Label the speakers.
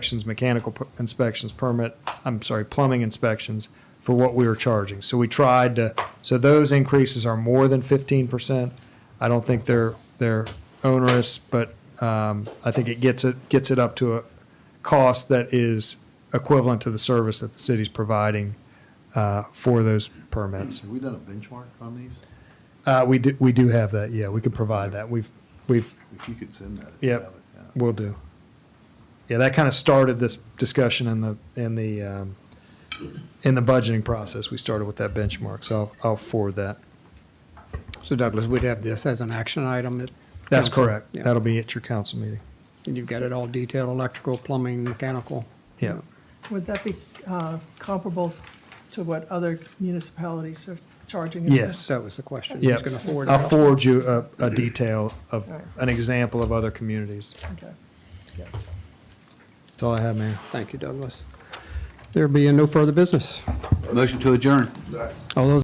Speaker 1: inspections, mechanical per- inspections, permit, I'm sorry, plumbing inspections for what we were charging. So we tried to, so those increases are more than fifteen percent. I don't think they're, they're onerous, but, um, I think it gets it, gets it up to a cost that is equivalent to the service that the city's providing, uh, for those permits.
Speaker 2: Have we done a benchmark on these?
Speaker 1: Uh, we do, we do have that, yeah, we can provide that. We've, we've
Speaker 2: If you could send that. if you
Speaker 1: Yep.
Speaker 2: have it, yeah.
Speaker 1: Will do. Yeah, that kind of started this discussion in the, in the, um, in the budgeting process. We started with that benchmark, so I'll, I'll forward that.
Speaker 3: So Douglas, we'd have this as an action item. at
Speaker 1: That's
Speaker 3: council.
Speaker 1: correct.
Speaker 3: Yeah.
Speaker 1: That'll be at your council meeting.
Speaker 3: And you've got it all detailed, electrical, plumbing, mechanical.
Speaker 1: Yeah.
Speaker 4: Would that be uh, comparable to what other municipalities are charging? as well?
Speaker 1: Yes.
Speaker 3: That was the question.
Speaker 1: Yeah.
Speaker 3: Who's going to forward
Speaker 1: I'll
Speaker 3: it?
Speaker 1: forward you a, a detail of,
Speaker 4: All right.
Speaker 1: an example of other communities.
Speaker 4: Okay.
Speaker 1: That's all I have, man.
Speaker 3: Thank you, Douglas. There being no further business.
Speaker 5: Motion to adjourn.
Speaker 3: All those